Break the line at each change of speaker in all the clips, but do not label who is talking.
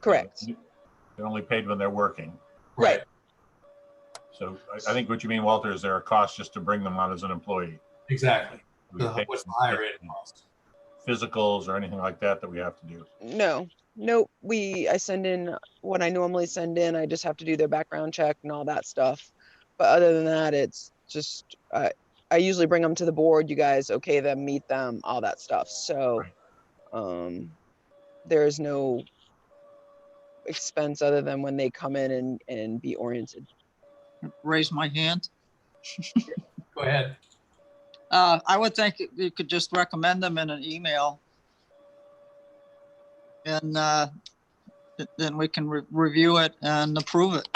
Correct.
They're only paid when they're working.
Right.
So I, I think what you mean, Walter, is there a cost just to bring them on as an employee?
Exactly.
Do we
Uh-huh.
The-
pay
What's the
them
higher rate cost?
Physicals or anything like that that we have to do?
No, no, we, I send in what I normally send in. I just have to do their background check and all that stuff. But other than that, it's just, uh, I usually bring them to the board. You guys okay them, meet them, all that stuff. So,
Right.
um, there is no expense other than when they come in and, and be oriented.
raise my hand.
Go ahead.
Uh, I would think that you could just recommend them in an email. And, uh, th- then we can re- review it and approve it.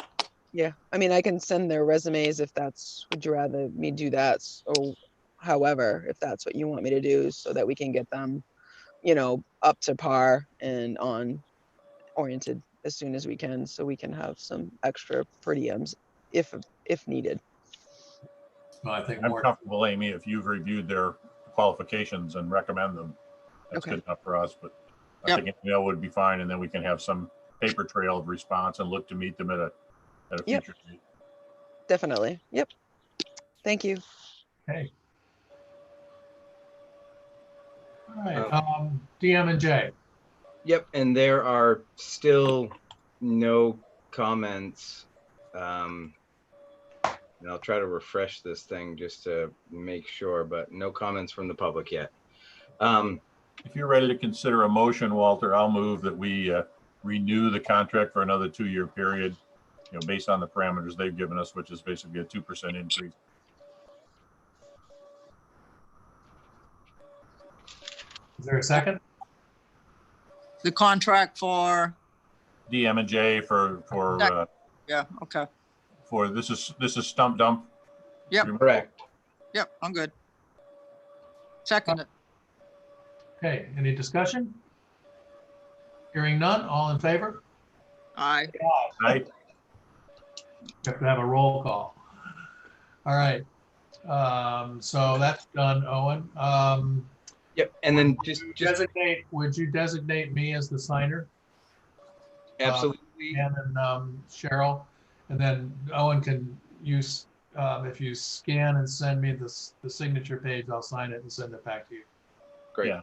Yeah, I mean, I can send their resumes if that's, would you rather me do that s- or however, if that's what you want me to do so that we can get them, you know, up to par and on oriented as soon as we can, so we can have some extra per diems if, if needed.
Well, I think
I'm
more,
comfortable, Amy, if you've reviewed their qualifications and recommend them. That's
Okay.
good enough for us, but I
Yep.
think an email would be fine, and then we can have some paper trail of response and look to meet them at a, at a
Yep.
future date.
Definitely. Yep. Thank you.
okay. All right,
Uh,
um, DM and J.
Yep, and there are still no comments. Um, and I'll try to refresh this thing just to make sure, but no comments from the public yet. Um,
If you're ready to consider a motion, Walter, I'll move that we uh, renew the contract for another two-year period, you know, based on the parameters they've given us, which is basically a 2% increase.
Is there a second?
The contract for,
DM and J for, for, uh,
yeah, okay.
for, this is, this is stump dump.
Yep.
correct.
Yep, I'm good. Second, it.
Okay, any discussion? Hearing none, all in favor?
aye.
Right?
We Have to have a roll call. All right. Um, so that's done, Owen. Um,
Yep, and then just,
you
just
designate, would you designate me as the signer?
absolutely,
Dan and um, Cheryl, and then Owen can use, um, if you scan and send me this, the signature page, I'll sign it and send it back to you.
great.
yeah.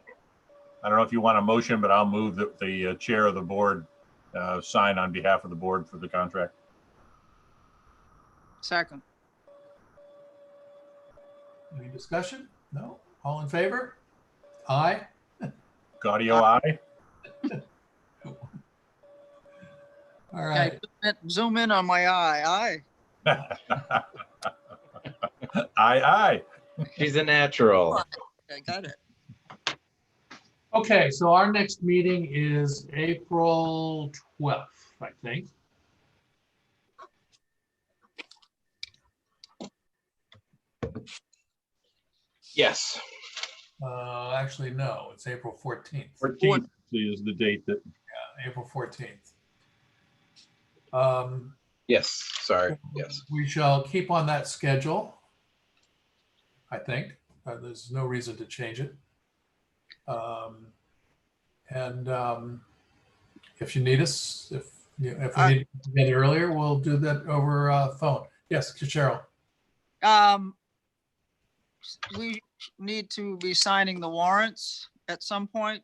I don't know if you want a motion, but I'll move that the uh, chair of the board uh, sign on behalf of the board for the contract.
Second,
Any discussion? No? All in favor? Aye?
Gaudio, aye?
All
okay,
right.
zoom in on my eye, aye.
Aye, aye.
She's a natural.
Okay, got it.
Okay, so our next meeting is April 12th, I think.
Yes,
Uh, actually, no, it's April 14th.
Fourteenth is the date that,
Yeah, April 14th. Um,
yes, sorry, yes.
We shall keep on that schedule. I think, Uh, there's no reason to change it. Um, And um, if you need us, if, you- if we
I-
need to get earlier, we'll do that over uh, phone. Yes, Cheryl,
Um, we need to be signing the warrants at some point.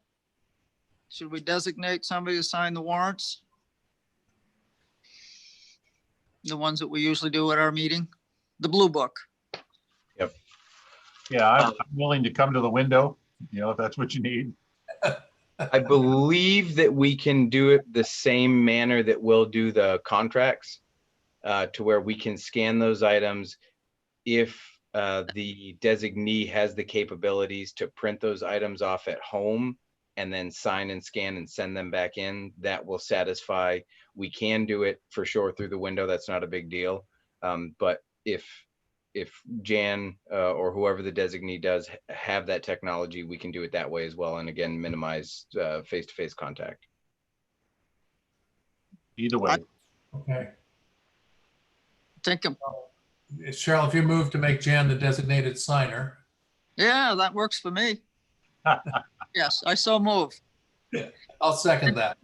Should we designate somebody to sign the warrants? The ones that we usually do at our meeting, the blue book.
yeah, I'm I'm willing to come to the window, you know, if that's what you need.
I believe that we can do it the same manner that we'll do the contracts, uh, to where we can scan those items. If, uh, the designee has the capabilities to print those items off at home and then sign and scan and send them back in, that will satisfy. We can do it for sure through the window. That's not a big deal. Um, but if, if Jan, uh, or whoever the designee does ha- have that technology, we can do it that way as well. And again, minimize, uh, face-to-face contact.
Either way,
okay.
Think, of-
Cheryl, if you move to make Jan the designated signer,
yeah, that works for me. Yes, I so move.
I'll second that.